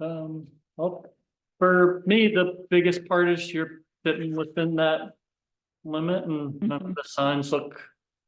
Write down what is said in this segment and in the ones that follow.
Um, well, for me, the biggest part is you're fitting within that limit and none Mm-hmm. of the signs look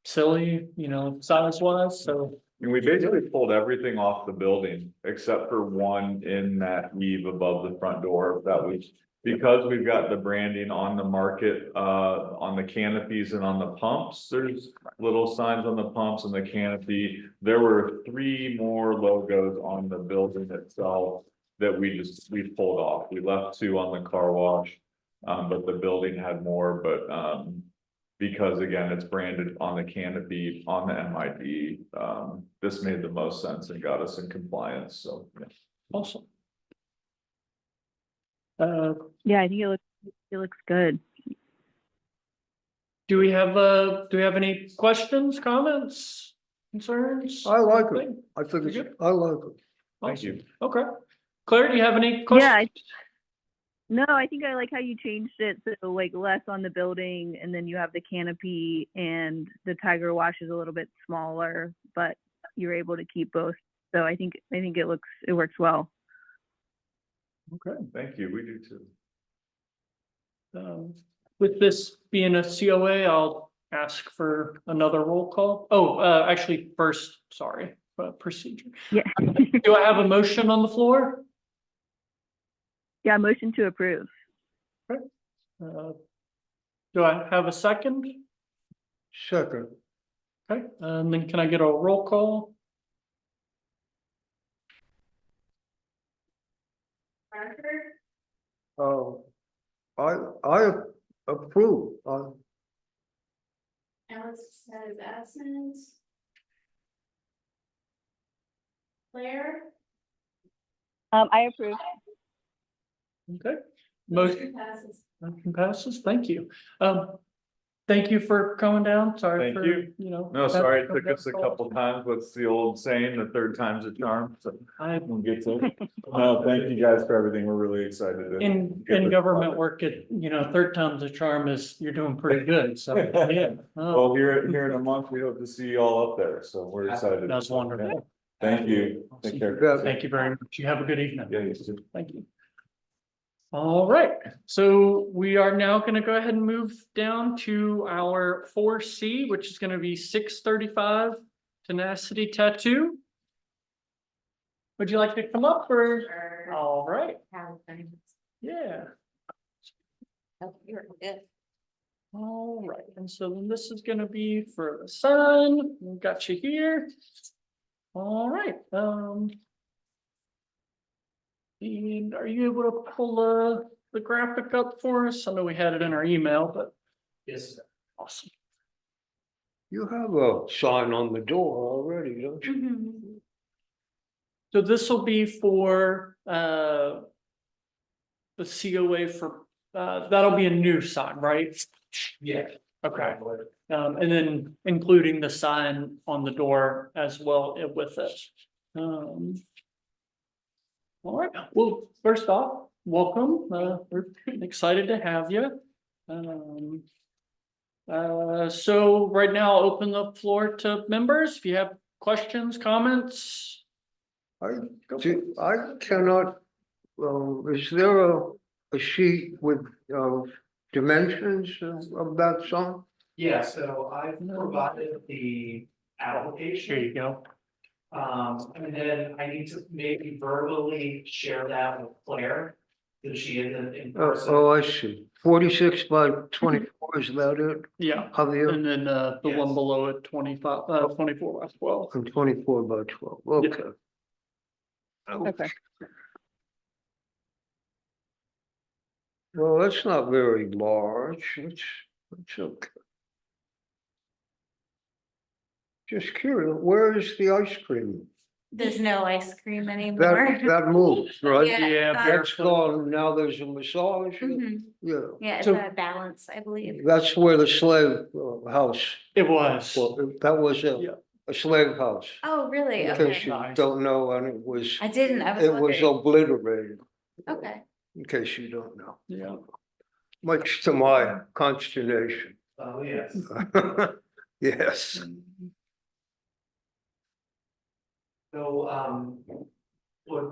silly, you know, size wise, so. And we basically pulled everything off the building except for one in that eave above the front door. That was because we've got the branding on the market, uh, on the canopies and on the pumps. There's little signs on the pumps and the canopy. There were three more logos on the building itself that we just, we pulled off. We left two on the car wash. Um, but the building had more, but, um, because again, it's branded on the canopy, on the MID, um, this made the most sense and got us in compliance, so. yeah. Awesome. Uh, Yeah, I think it looks, it looks good. do we have, uh, do we have any questions, comments, concerns? I like it. Anything? I think You're it's, I like it. Thank you. Awesome. Okay. Claire, do you have any Yeah. questions? I- No, I think I like how you changed it. So like less on the building and then you have the canopy and the tiger wash is a little bit smaller, but you're able to keep both. So I think, I think it looks, it works well. Okay, thank you, we do too. Um, with this being a COA, I'll ask for another roll call. Oh, uh, actually, first, sorry, uh, procedure. Yeah. Do I have a motion on the floor? Yeah, motion to approve. Uh, Do I have a second? Second, Okay, and then can I get a roll call? um, I, I approve, Uh, I, Alex says absent. Claire? Um, I approve. Okay. Motion Passes. motion passes, thank you. Um, thank you for coming down, sorry Thank for, you. you know. No, having sorry, it to come took us a down. couple times, what's the old saying, the third time's a charm, so. I We'll get to it. No, thank you guys for everything, we're really excited. to- In, get in this government started. work, it, you know, third time's a charm is you're doing pretty good, so, yeah. Oh, Well, here, here in a month, we hope to see you all up there, so we're excited. That was wonderful. Thank you, take care. Yeah. Thank you very much. You have a good evening. Yeah, you too. Thank you. All right, so we are now gonna go ahead and move down to our four C, which is gonna be six thirty-five tenacity tattoo. Would you like to come up or? Sure. All right, Have things. yeah. Oh, you're good. All right, and so then this is gonna be for the sun, we got you here. All right, um. And are you able to pull uh the graphic up for us? I know we had it in our email, but. Yes. Awesome. you have a sign on the door already, don't you? So this will be for uh. The COA for, uh, that'll be a new sign, right? Yeah. Okay, um, and then including the sign on the door as well i- with it. Um. All right, well, first off, welcome, uh, we're excited to have you. Um. Uh, so right now, I'll open the floor to members, if you have questions, comments. I, Go for do- I cannot, um, is there a, a sheet with, uh, dimensions of- of that sign? Yeah, so I've No. provided the Here application, you go. um, and then I need to maybe verbally share that with Claire. That she is in- Uh, in Oh, person, oh, I see, forty-six by twenty-four, is that it, Yeah, Javier? and then uh the one Yes. below it, twenty-five, uh twenty-four by twelve. And twenty-four by twelve, okay. Okay. Well, that's not very large, it's, it's okay. Just curious, where is the ice cream? There's no ice cream anymore. That, that moves, right? Yeah, Yeah, uh, That's gone, now there's a massage, Mhm. yeah, Yeah, it's So- a balance, I believe. that's where the slave uh, house, it was. well, that was Yeah. a, a slave house. Oh, really? In Okay. case you Nice. don't know, and it was, I didn't, I it was was wondering. obliterated, Okay. in case you don't know, Yeah, much to my consternation. oh, yes. Yes, So, um, what